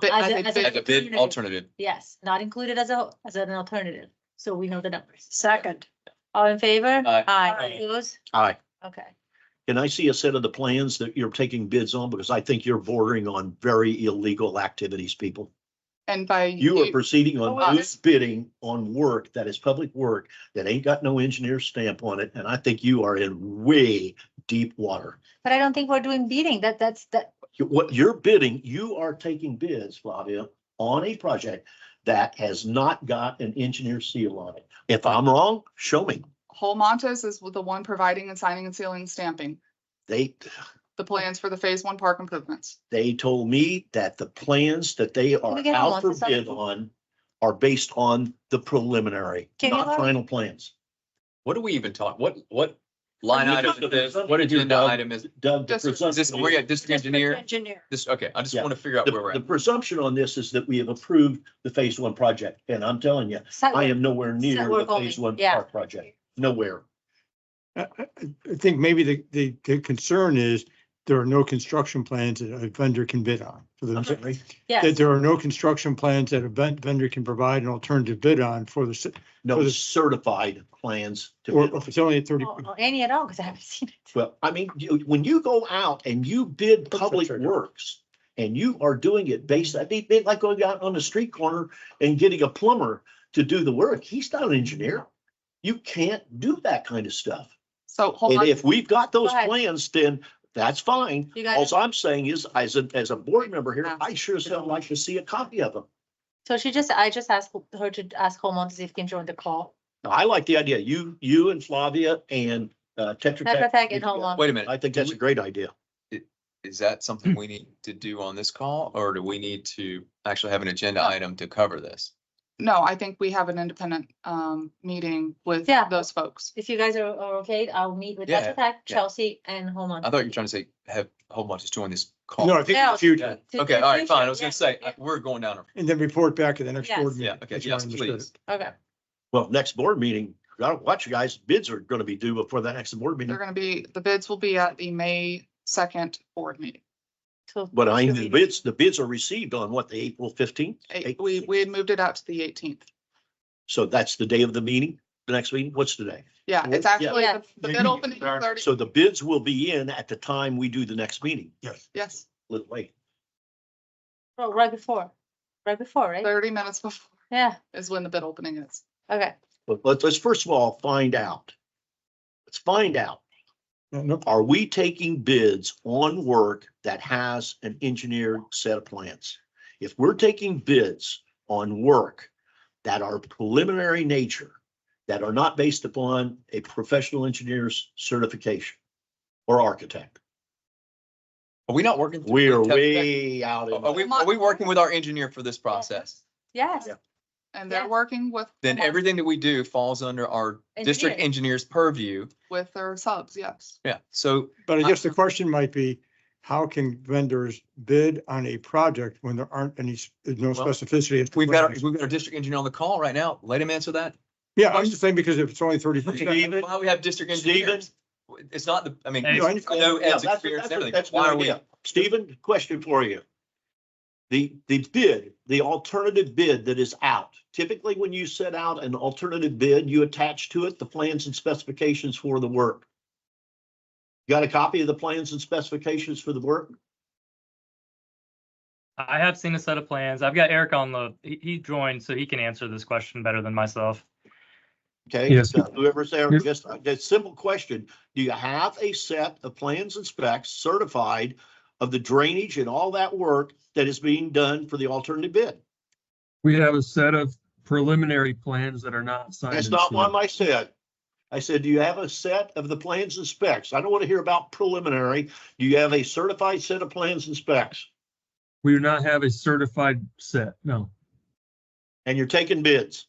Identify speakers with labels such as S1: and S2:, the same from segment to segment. S1: Bid-
S2: As a-
S1: as a
S2: as a-
S1: bid-
S3: as a bid
S2: Alternative.
S3: alternative.
S2: Yes, not included as a, as an alternative, so we know the numbers.
S4: Second,
S2: All in favor?
S3: Aye.
S2: Aye.
S4: Aye.
S2: Opposed?
S5: Aye.
S2: Okay.
S5: Can I see a set of the plans that you're taking bids on? Because I think you're bordering on very illegal activities, people.
S1: And by.
S5: You are proceeding
S4: Oh,
S5: on
S4: well,
S5: loose bidding on work that is public work that ain't got no engineer stamp on it, and I think you are in way deep water.
S2: But I don't think we're doing beating. That, that's, that,
S5: You- What you're bidding, you are taking bids, Flavia, on a project that has not got an engineer seal on it. If I'm wrong, show me.
S1: Whole Montes is the one providing and signing and sealing and stamping
S5: They,
S1: the plans for the phase one park improvements.
S5: they told me that the plans that they are
S2: we get a
S5: out for
S2: lots of
S5: bid
S2: stuff?
S5: on are based on the preliminary,
S2: Can you
S5: not
S2: look?
S5: final plans.
S3: What are we even talking? What, what line
S5: You
S3: item
S5: got
S3: is
S5: the
S3: this? What
S5: presumption here,
S3: agenda
S5: Doug.
S3: item is,
S5: Doug, the
S1: Just- is
S3: is this,
S5: presumption
S3: we're
S5: is-
S3: at district engineer?
S4: engineer.
S3: This, okay, I just
S5: Yeah.
S3: want to figure out where
S5: the
S3: we're
S5: the
S3: at.
S5: presumption on this is that we have approved the phase one project, and I'm telling you,
S2: site
S5: I
S2: work-
S5: am nowhere near
S2: we're
S5: the phase
S2: going-
S5: one
S2: yeah.
S5: park project, nowhere.
S6: I, I- I think maybe the, the, the concern is there are no construction plans that a vendor can bid on. for
S5: I'm
S6: the
S5: sorry,
S6: That
S2: Yes,
S6: there are no construction plans that a ven- vendor can provide an alternative bid on for the, ci- For
S5: no
S6: the-
S5: certified plans to
S6: or
S5: bid on.
S6: if it's only at thirty.
S2: or or any Oh, at all, because I haven't seen it.
S5: Well, I mean, you- when you go out and you bid public works and you are doing it based, I think, they like going out on the street corner and getting a plumber to do the work. He's not an engineer. You can't do that kind of stuff.
S1: So Whole
S5: And
S1: Montes,
S5: if we've got those
S2: Go ahead.
S5: plans, then that's fine.
S2: You guys,
S5: Alls I'm saying is, as a, as a board member here, I sure as hell like to see a copy of them.
S2: so she just, I just asked her to ask Holman to see if he can join the call.
S5: Now, I like the idea. You, you and Flavia and uh, Tetra
S2: Tetra
S5: Tech.
S2: Tech and Holman.
S3: Wait a minute.
S5: I think
S3: do
S5: that's a
S3: we-
S5: great idea.
S3: Is that something we need to do on this call or do we need to actually have an agenda item to cover this?
S1: no, I think we have an independent um meeting with
S2: Yeah.
S1: those folks.
S2: If you guys are, are okay, I'll meet with
S3: Yeah,
S2: Tetra Tech,
S3: yeah.
S2: Chelsea and Holman.
S3: I thought you were trying to say have whole bunch just join this call.
S2: Oh.
S6: No, I think in
S2: Yeah.
S6: the future,
S3: Okay, all right, fine. I was gonna say, I- we're going down. a-
S6: and then report back at the next
S2: Yes.
S6: board
S3: Yeah,
S6: meeting.
S3: okay,
S6: That's what I
S3: yes,
S6: understood.
S3: please.
S2: Okay,
S5: Well, next board meeting, gotta watch you guys, bids are gonna be due before the next board meeting.
S1: They're gonna be, the bids will be at the May second board meeting.
S2: so.
S5: But I, the bids, the bids are received on what, the April fifteenth?
S1: Eight- We, we had moved it out to the eighteenth.
S5: So that's the day of the meeting, the next meeting, what's today?
S1: Yeah, it's
S5: Yeah.
S1: actually, the the bid
S6: Yeah.
S1: opening is thirty,
S5: So the bids will be in at the time we do the next meeting,
S1: yes,
S5: little late.
S2: Oh, Right before, right before, right?
S1: thirty minutes before
S2: Yeah,
S1: is when the bid opening is.
S2: okay.
S5: But let's, let's first of all, find out. Let's find out,
S6: Yeah, no,
S5: are we taking bids on work that has an engineered set of plans? If we're taking bids on work that are preliminary nature, that are not based upon a professional engineer's certification or architect,
S3: Are we not working? through
S5: we are
S3: Tetra Tech?
S5: way out.
S3: Are are
S5: in-
S3: we, are we working with our engineer for this process?
S2: Yes,
S5: Yeah.
S1: And
S2: Yeah.
S1: they're working with.
S3: Then
S1: Hallmark,
S3: everything that we do falls under our district
S2: Engineer.
S3: engineer's purview.
S1: With their subs, yes.
S3: Yeah, so
S6: But I
S2: Uh,
S6: guess the question might be, how can vendors bid on a project when there aren't any, s- no
S3: Well,
S6: specificity? as to
S3: we've
S6: what
S3: got,
S6: it
S3: our-
S6: is?
S3: we've got our district engineer on the call right now. Let him answer that.
S6: Yeah, I'm just saying because if it's only thirty percent,
S5: Steven,
S3: Why we have district engineers? It's not the, I mean,
S6: Hey.
S3: I know
S5: Yeah,
S3: Ed's experience and
S5: that's- that's-
S3: everything.
S5: that's
S3: Why
S5: my
S3: are we?
S5: idea. Stephen, question for you. The, the bid, the alternative bid that is out, typically when you set out an alternative bid, you attach to it the plans and specifications for the work. You Got a copy of the plans and specifications for the work?
S7: I have seen a set of plans. I've got Eric on the, he, he joined, so he can answer this question better than myself.
S5: Okay.
S7: Yes.
S5: so Whoever's there,
S7: Yes.
S5: just, a simple question. Do you have a set of plans and specs certified of the drainage and all that work that is being done for the alternative bid?
S8: We have a set of preliminary plans that are not signed.
S5: That's
S8: and
S5: not one
S8: sealed.
S5: I said. I said, do you have a set of the plans and specs? I don't want to hear about preliminary. Do you have a certified set of plans and specs?
S8: We do not have a certified set. No,
S5: And you're taking bids.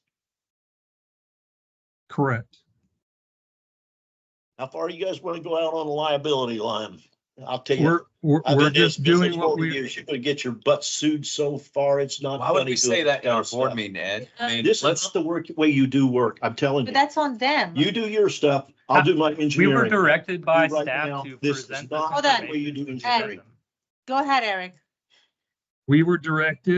S8: correct.
S5: How far you guys want to go out on the liability line? I'll tell
S8: We're,
S5: you.
S8: we're,
S5: I've
S8: we're
S5: been in this
S8: just doing
S5: business
S8: what
S5: over the
S8: we,
S5: years. You're gonna get your butt sued so far, it's not.
S3: Why would
S5: funny
S3: we
S5: doing
S3: say that in
S5: kind
S3: our
S5: of
S3: board
S5: stuff.
S3: meeting, Ed?
S2: Yeah.
S3: I mean,
S5: uh, This
S3: let's,
S5: is the work, way you do work. I'm telling
S2: but
S5: you.
S2: that's on them.
S5: You do your stuff. I'll do my
S7: We
S5: engineering.
S7: were directed by
S5: You right now,
S7: staff to
S5: this is
S7: present. this
S5: not
S2: Hold on.
S5: the way you do
S7: information to
S5: engineering.
S7: them.
S2: Go ahead, Eric.
S8: we were directed